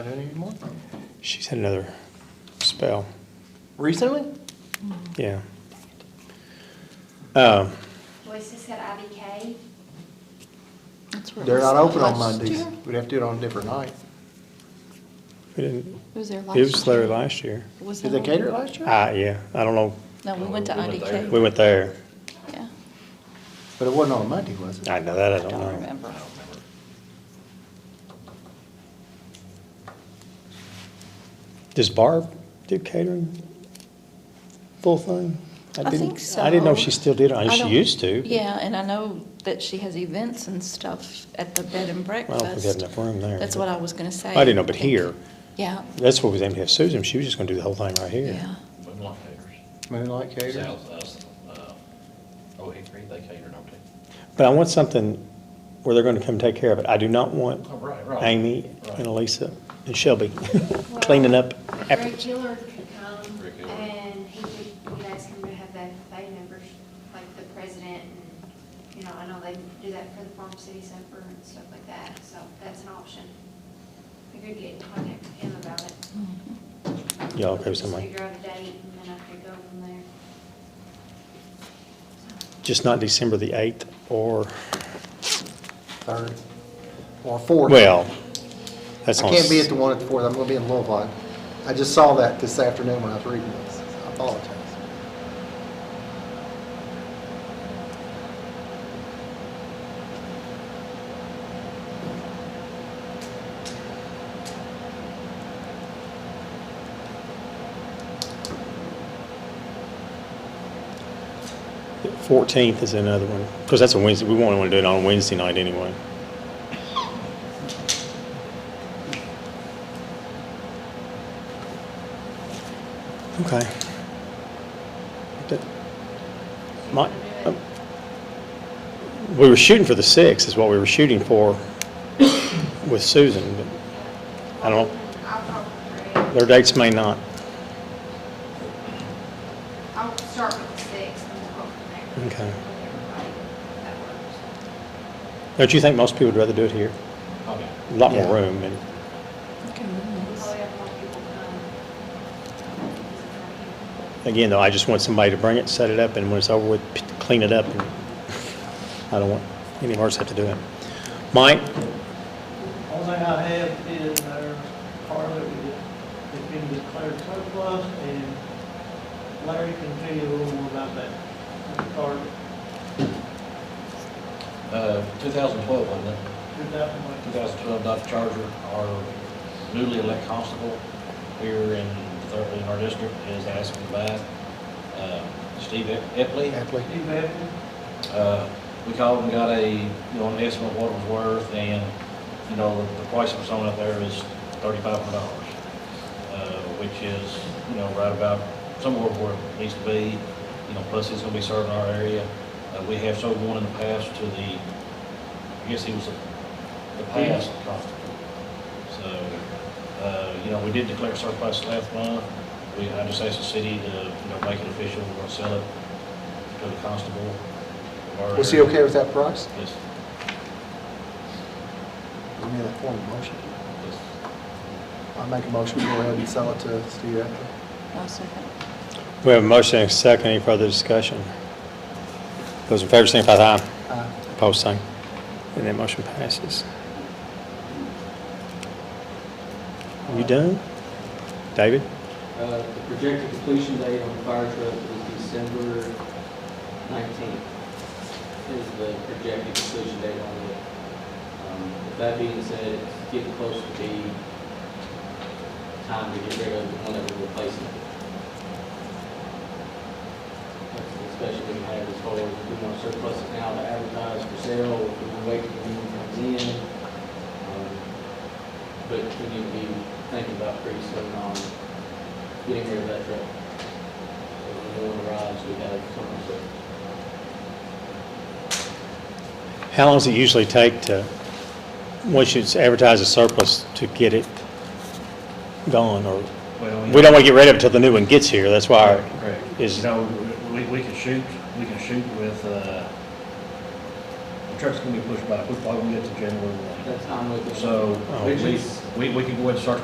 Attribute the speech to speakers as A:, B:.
A: doing anymore?
B: She's had another spell.
A: Recently?
B: Yeah. Um,
C: Voices got IBK.
D: That's where it
A: They're
D: was
A: not open on
D: last
A: Mondays.
D: year.
A: We'd have to do it on a different night.
B: we didn't,
D: It was there last
B: it
D: year.
B: was there last year.
D: Was
A: Did
D: that
A: they
D: on-
A: cater it last year?
B: Ah, yeah. I don't know.
D: No, we went to
B: We
D: IDK.
B: went there.
D: Yeah,
A: But it wasn't on a Monday, was it?
B: I know that. I don't
D: don't
B: know.
D: remember.
B: Does Barb do catering? Full thing?
D: I
B: didn't-
D: think so.
B: I didn't know if she still did. I
D: I
B: know she
D: don't-
B: used to.
D: Yeah, and I know that she has events and stuff at the bed and
B: I don't think we had
D: breakfast.
B: enough room there.
D: That's what I was gonna say.
B: I didn't know, but
D: Think-
B: here,
D: Yeah,
B: that's what was aimed to have Susan. She was just gonna do the whole thing right here.
D: yeah.
E: Moonlight caters.
A: Moonlight catering?
E: South, us, uh, oh, Hickory, they cater, don't they?
B: But I want something where they're gonna come take care of it. I do not want
E: Oh, right, right.
B: Amy
E: Right.
B: and Elisa and Shelby cleaning up
C: Rick
B: afterwards.
C: Gillard could come
E: Rick Gillard.
C: and he could, you guys can have that, they members, like the president and, you know, I know they do that for the Farm City Supper and stuff like that, so that's an option. We could get in contact with him about it.
B: Yeah, Mm-hmm. okay, with
C: Just
B: somebody.
C: figure out a date and then I could go from there.
B: Just not December the eighth or,
A: Third or fourth?
B: well, that's
A: I
B: on.
A: can't be
B: s-
A: at the one at the fourth. I'm gonna be in Louisville. I just saw that this afternoon when I was reading this. I apologize.
B: the Fourteenth is another one, because that's a Wednesday. We won't wanna do it on a Wednesday night anyway. Okay. That- My, um, we were shooting for the sixth is what we were shooting for with Susan, but I don't,
C: I'll probably,
B: their dates may not.
C: I'll start with the six and we'll go from there.
B: Okay.
C: With everybody, if that works.
B: Don't you think most people would rather do it here?
E: Okay.
B: A lot
A: Yeah.
B: more room and.
D: Okay, nice.
C: Probably have more people come.
B: Again, though, I just want somebody to bring it, set it up, and when it's over with, p- clean it up. and I don't want any of ours to have to do it. Mike,
F: Only thing I have is our car that we did, it's been declared surplus, and Larry can tell you a little more about that car,
E: Uh, 2012, wasn't it?
F: two thousand one.
E: 2012 Dodge Charger, our newly elected constable here in, third- in our district is asking to buy it. Uh, Steve Ep- Epley.
A: Happily.
F: Steve Evans,
E: Uh, we called and got a, you know, an estimate of what it was worth, and, you know, the price of something up there is thirty-five hundred dollars, uh, which is, you know, right about somewhere where it needs to be, you know, plus it's gonna be serving our area. Uh, we have sold one in the past to the, I guess he was the- the past constable. So, uh, you know, we did declare surplus last month. We, I just asked the city to, you know, make it official, we're gonna sell it to the constable. of our
A: Was he
E: area.
A: okay with that price?
E: Yes,
A: Give me that form of motion.
E: yes.
A: I make a motion, to go ahead and sell it to Steve Epley.
D: I'll second.
B: we have a motion and a second. Any further discussion? Those in favor, signify by aye.
A: Aye.
B: Opposed, same. And that motion passes. You done? David?
G: Uh, The projected completion date on the fire truck is December 19th, is the projected completion date on it. Um, With that being said, it's getting close to the time to get rid of the one that we're replacing. That's the discussion we had as far as if we want to surplus it now to advertise for sale, or if we want to wait till the new one comes in. Um, But we need to be thinking about pretty soon on getting rid of that truck. So when the one arrives, we have something to,
B: How long does it usually take to, once it's advertised as surplus, to get it gone? Or,
E: Well, you
B: we don't
E: know-
B: want to get rid of it till the new one gets here. That's why our
E: Correct.
B: is-
E: You know, we, we can shoot, we can shoot with, uh, the truck's gonna be pushed back, we're probably gonna get to January one.
G: that's how I'm looking at it.
E: So,
B: Oh,
E: we, we, we can go ahead and start